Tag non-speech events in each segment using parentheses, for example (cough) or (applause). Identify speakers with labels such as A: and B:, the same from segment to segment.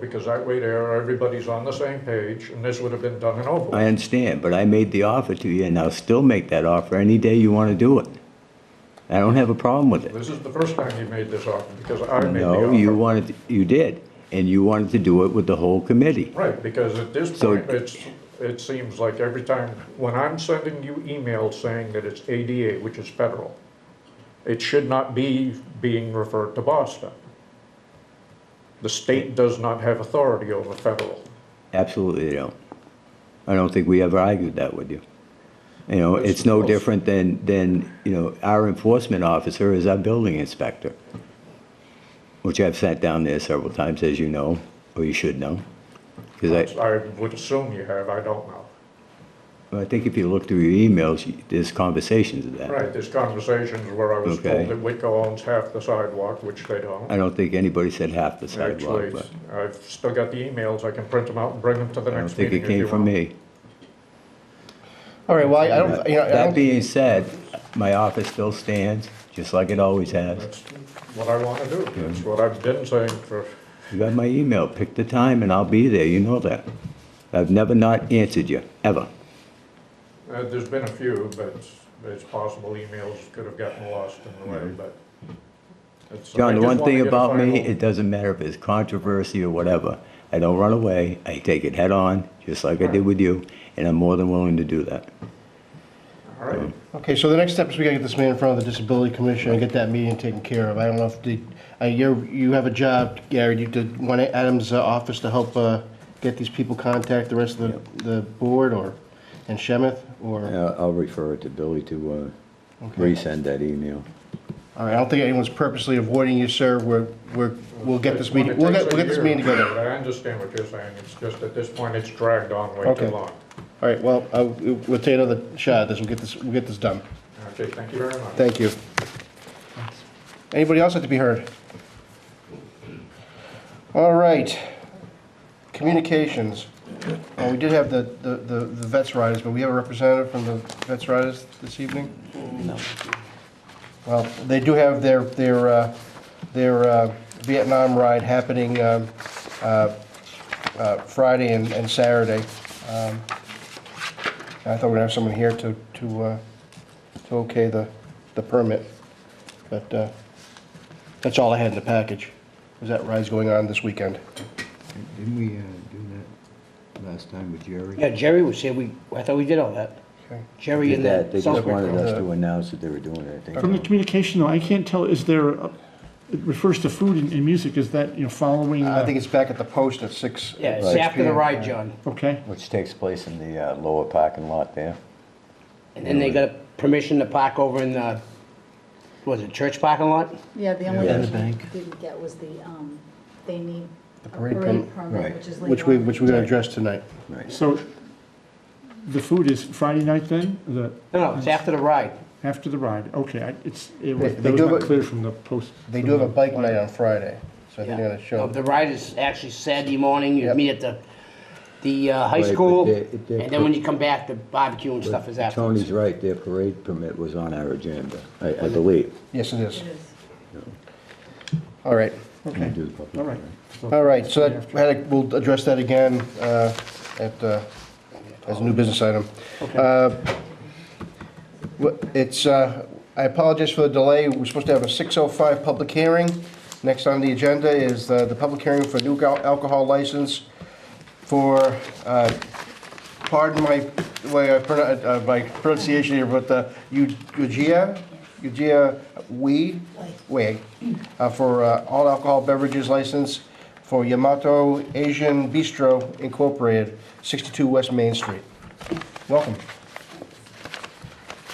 A: because that way there, everybody's on the same page, and this would have been done and over.
B: I understand, but I made the offer to you, and I'll still make that offer any day you want to do it. I don't have a problem with it.
A: This is the first time you made this offer, because I made the offer.
B: No, you wanted, you did, and you wanted to do it with the whole committee.
A: Right, because at this
B: So-
A: point, it's, it seems like every time, when I'm sending you emails saying that it's ADA, which is federal, it should not be being referred to Boston. The state does not have authority over federal.
B: Absolutely they don't. I don't think we ever argued that with you. You know, it's no different than, than, you know, our enforcement officer is our building inspector, which I've sat down there several times, as you know, or you should know. Because
A: I would assume you have, I don't know.
B: I, I think if you look through your emails, you- there's conversations of that.
A: Right, there's conversations where I was
B: Okay.
A: told that Whitco owns half the sidewalk, which they don't.
B: I don't think anybody said half the sidewalk,
A: Actually,
B: but
A: I've still got the emails, I can print them out and bring them to the
B: I don't
A: next
B: think
A: meeting
B: it
A: if you
B: came from
A: want.
B: me.
C: All right, well, I I don't, you know, I
B: That
C: don't-
B: being said, my office still stands, just like it always has.
A: That's what I want to do, that's what I've been saying for,
B: You got my email, pick the time and I'll be there, you know that. I've never not answered you, ever.
A: uh, there's been a few, but it's possible emails could have gotten lost in the way, but. it's- I
B: John, the
A: just
B: one
A: wanna
B: thing
A: get a
B: about me,
A: final-
B: it doesn't matter if it's controversy or whatever, I don't run away, I take it head on, just like I did with you, and I'm more than willing to do that.
A: All right,
C: okay, so the next step is we gotta get this man in front of the Disability Commission and get that meeting taken care of. I don't know if the, uh, you're, you have a job, Gary, you did, want Adam's uh, office to help uh, get these people contact the rest of the, the board or, and Shemeth, or,
B: I'll refer it to Billy to uh,
C: Okay.
B: resend that email.
C: all right, I don't think anyone's purposely avoiding you, sir, we're, we're, we'll get this
A: When
C: meeting,
A: it
C: we'll get,
A: takes a
C: we'll get this
A: year,
C: meeting together.
A: but I understand what you're saying, it's just at this point, it's dragged on way too
C: Okay.
A: long.
C: All right, well, uh, we'll take another shot at this, we'll get this, we'll get this done.
A: Okay, thank you very much.
C: Thank you. Anybody else like to be heard? All right. Communications. Uh, We did have the the the the Vets Riders, but we have a representative from the Vets Riders this evening? Well, they do have their their uh, their uh, Vietnam ride happening um, uh, uh, Friday and and Saturday. Um, I thought we'd have someone here to to uh, to okay the, the permit. But uh, that's all I had in the package, was that ride's going on this weekend.
B: Didn't we uh, do that last time with Jerry?
D: Yeah, Jerry was here, we, I thought we did all that.
C: Okay.
D: Jerry and the Southwick.
C: us to
B: announce that they were doing it, I
E: From the communication, though, I can't tell, is there, a- it refers to food and, and music, is that, you know, following?
C: I
E: uh,
C: think it's back at the post at six.
D: Yeah, it's
B: Right.
D: after the ride, John.
E: Okay,
B: Which takes place in the uh, lower parking lot there.
D: And then they got permission to park over in the, was it church parking lot?
F: Yeah, the only
B: Yeah.
F: thing
B: The bank.
F: we didn't get was the, um, they need a
C: parade
F: parade
C: permit.
B: Right.
F: permit, which is legal.
C: Which we, which we're gonna address tonight.
B: Right.
E: so the food is Friday night then, the,
D: No, no, it's after the ride.
E: after the ride, okay, I- it's, it was,
C: They- they
E: that was
C: do have
E: not
C: a-
E: clear from the post.
C: They do have a bike night on Friday, so I think they're gonna
D: Yeah.
C: show.
D: The ride is actually Saturday morning, you
C: Yep.
D: meet at the, the uh, high
B: Right, but
D: school,
B: they- they-
D: and then when you come back, the barbecue and stuff is
B: Tony's
D: afterwards.
B: right, their parade permit was on our agenda, I, I believe.
C: Yes, it is.
F: It is.
C: All right,
E: Okay,
B: Do the public
E: all right.
B: hearing.
E: So-
C: all right, so that, had a- we'll address that again uh, at, uh, as a new business item. Uh, Well, It's, uh, I apologize for the delay. We're supposed to have a 6:05 public hearing. Next on the agenda is uh, the public hearing for new gal- alcohol license for, uh, pardon my, the way I pronoun- uh, my pronunciation here, but uh, Eu- Eugia, Eugia Wei, Wei, uh, for uh, all alcohol beverages license for Yamato Asian Bistro Incorporated, 62 West Main Street. Welcome.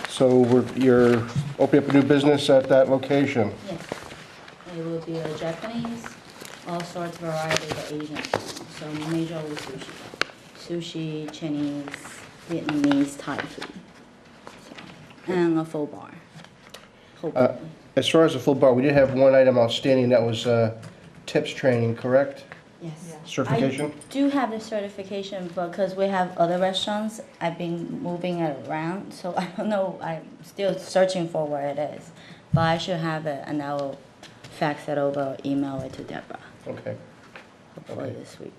C: So we're, you're opening up a new business at that location?
F: Yes. It will be a Japanese, all sorts of variety of Asian, so major sushi. Sushi, Chinese, Vietnamese, Thai food. So, And a full bar.
B: Uh,
F: Hopefully.
C: As far as the full bar, we did have one item outstanding, that was uh, tips training, correct?
F: Yes.
C: Certification?
F: I do have the certification because we have other restaurants. I've been moving it around, so (laughs) I don't know. I'm still searching for where it is, but I should have it, and I will fax it over, or email it to Deborah.
C: Okay.
F: earlier this week.